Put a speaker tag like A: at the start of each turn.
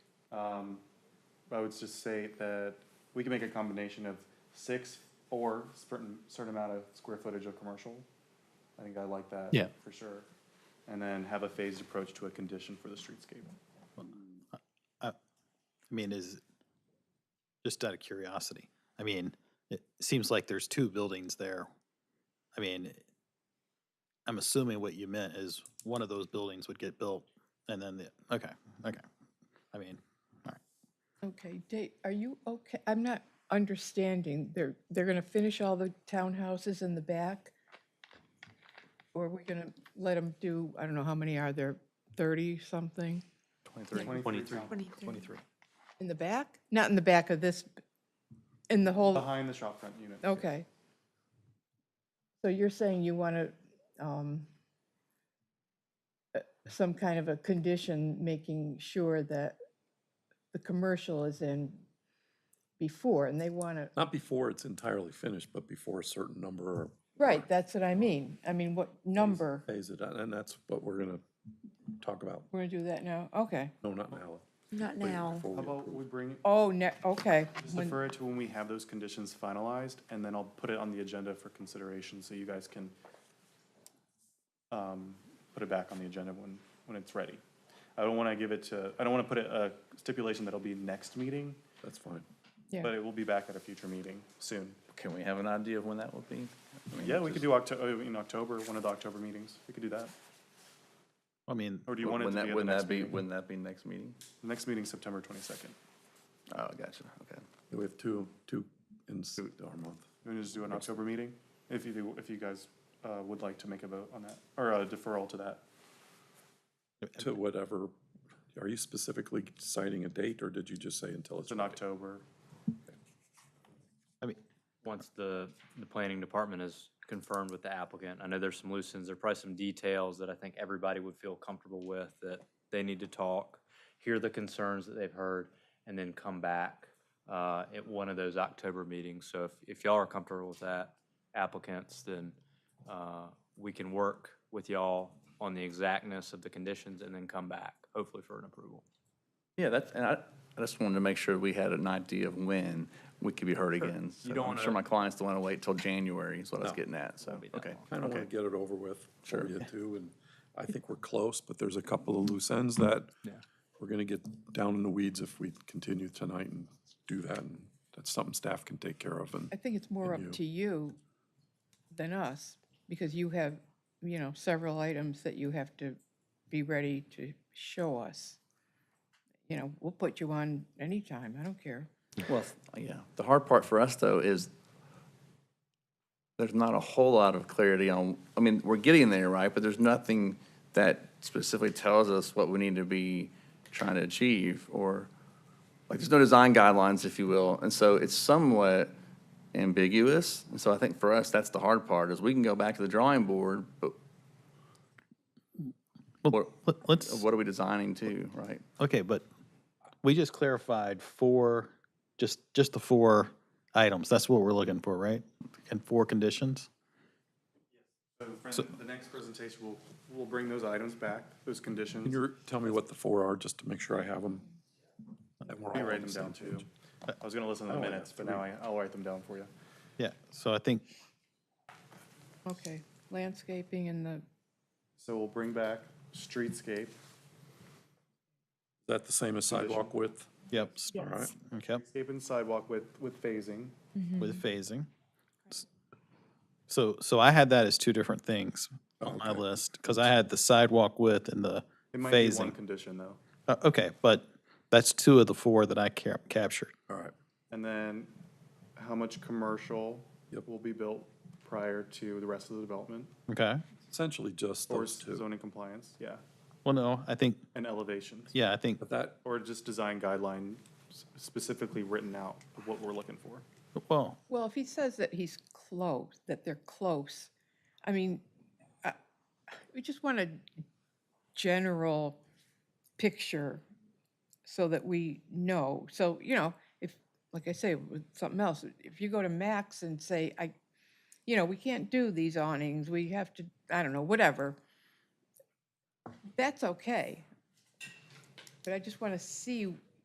A: Um, I would just say that we can make a combination of six or certain, certain amount of square footage of commercial. I think I like that.
B: Yeah.
A: For sure. And then have a phased approach to a condition for the streetscape.
C: I mean, is, just out of curiosity, I mean, it seems like there's two buildings there. I mean, I'm assuming what you meant is one of those buildings would get built and then the, okay, okay. I mean, all right.
D: Okay, Dave, are you okay? I'm not understanding. They're, they're gonna finish all the townhouses in the back? Or are we gonna let them do, I don't know, how many are there, 30 something?
A: Twenty-three.
C: Twenty-three.
D: In the back? Not in the back of this, in the whole,
A: Behind the shop front unit.
D: okay. So you're saying you wanna, um, uh, some kind of a condition making sure that the commercial is in before, and they wanna
E: Not before it's entirely finished, but before a certain number or
D: Right, that's what I mean. I mean, what number?
E: phase it, out, and that's what we're gonna talk about.
D: We're gonna do that now? Okay.
E: No, not now.
F: Not
E: Wait,
F: now.
E: before we
A: How about
E: approve.
A: we bring,
D: Oh, ne, okay.
A: just
D: When-
A: defer it to when we have those conditions finalized, and then I'll put it on the agenda for consideration, so you guys can um, put it back on the agenda when, when it's ready. I don't want to give it to, I don't want to put a a stipulation that'll be next meeting,
E: That's fine.
D: Yeah.
A: but it will be back at a future meeting soon.
G: Can we have an idea of when that would be? I mean,
A: Yeah, we
G: just-
A: could do Octo, oh, in October, one of the October meetings, we could do that.
C: I mean,
A: Or do you want it to
G: Wouldn't
A: be
G: that-
A: at the
G: wouldn't
A: next
G: that be-
A: meeting?
G: Wouldn't that be next meeting?
A: Next meeting's September twenty-second.
G: Oh, gotcha, okay.
E: We have two, two in s- our
A: You
E: month.
A: want to just do an October meeting? If you, do- if you guys uh, would like to make a vote on that, or a deferral to that.
E: To whatever, are you specifically citing a date or did you just say until it's?
A: It's in October.
C: I mean,
H: once the, the planning department is confirmed with the applicant, I know there's some loose ends, there are probably some details that I think everybody would feel comfortable with, that they need to talk, hear the concerns that they've heard, and then come back uh, at one of those October meetings. So if, if y'all are comfortable with that, applicants, then uh, we can work with y'all on the exactness of the conditions and then come back, hopefully for an approval.
G: Yeah, that's, and I, I just wanted to make sure we had an idea of when we could be heard again. So
H: don't
G: I'm
H: wanna-
G: sure my clients don't want to wait till January is what I was
E: No.
G: getting at, so,
H: be that
G: okay.
E: I don't
G: okay.
E: want to get it over with. Sure. You do, and I think we're close, but there's a couple of loose ends that we're going to get down in the weeds if we continue tonight and do that. And that's something staff can take care of. And
D: I think it's more up to you than us, because you have, you know, several items that you have to be ready to show us. You know, we'll put you on anytime, I don't care.
G: Well, yeah, the hard part for us, though, is there's not a whole lot of clarity on, I mean, we're getting there, right? But there's nothing that specifically tells us what we need to be trying to achieve, or, like, there's no design guidelines, if you will. And so it's somewhat ambiguous. And so I think for us, that's the hard part, is we can go back to the drawing board, but
C: well,
G: what,
C: let- let's,
G: what are we designing to, right?
C: okay, but we just clarified four, just, just the four items. That's what we're looking for, right? And four conditions?
A: So the next presentation, we'll, we'll bring those items back, those conditions.
E: can you tell me what the four are, just to make sure I have them? And we're all
A: Let me
E: on
A: write them
E: the same
A: down too.
E: page.
A: I was gonna listen to the minutes, but now I, I'll write them down for you.
C: Yeah, so I think,
D: Okay, landscaping and the,
A: So we'll bring back streetscape,
E: Is that the same as sidewalk width?
C: yep, s-
E: All right.
C: okay,
A: scape and sidewalk with, with phasing.
C: with phasing. S- So, so I had that as two different things on my list, because I had the sidewalk width and the
A: It might be one
C: phasing.
A: condition though.
C: Uh, Okay, but that's two of the four that I ca- captured.
E: All right.
A: And then how much commercial
E: Yep.
A: will be built prior to the rest of the development?
C: Okay.
E: Essentially just
A: Or
E: those two.
A: zoning compliance, yeah,
C: Well, no, I think,
A: and elevations.
C: yeah, I think,
E: But that,
A: Or just design guideline s- specifically written out of what we're looking for.
C: well,
D: well, if he says that he's close, that they're close, I mean, I- we just want a general picture so that we know. So, you know, if, like I say, with something else, if you go to Max and say, I, you know, we can't do these awnings, we have to, I don't know, whatever, that's okay. But I just want to see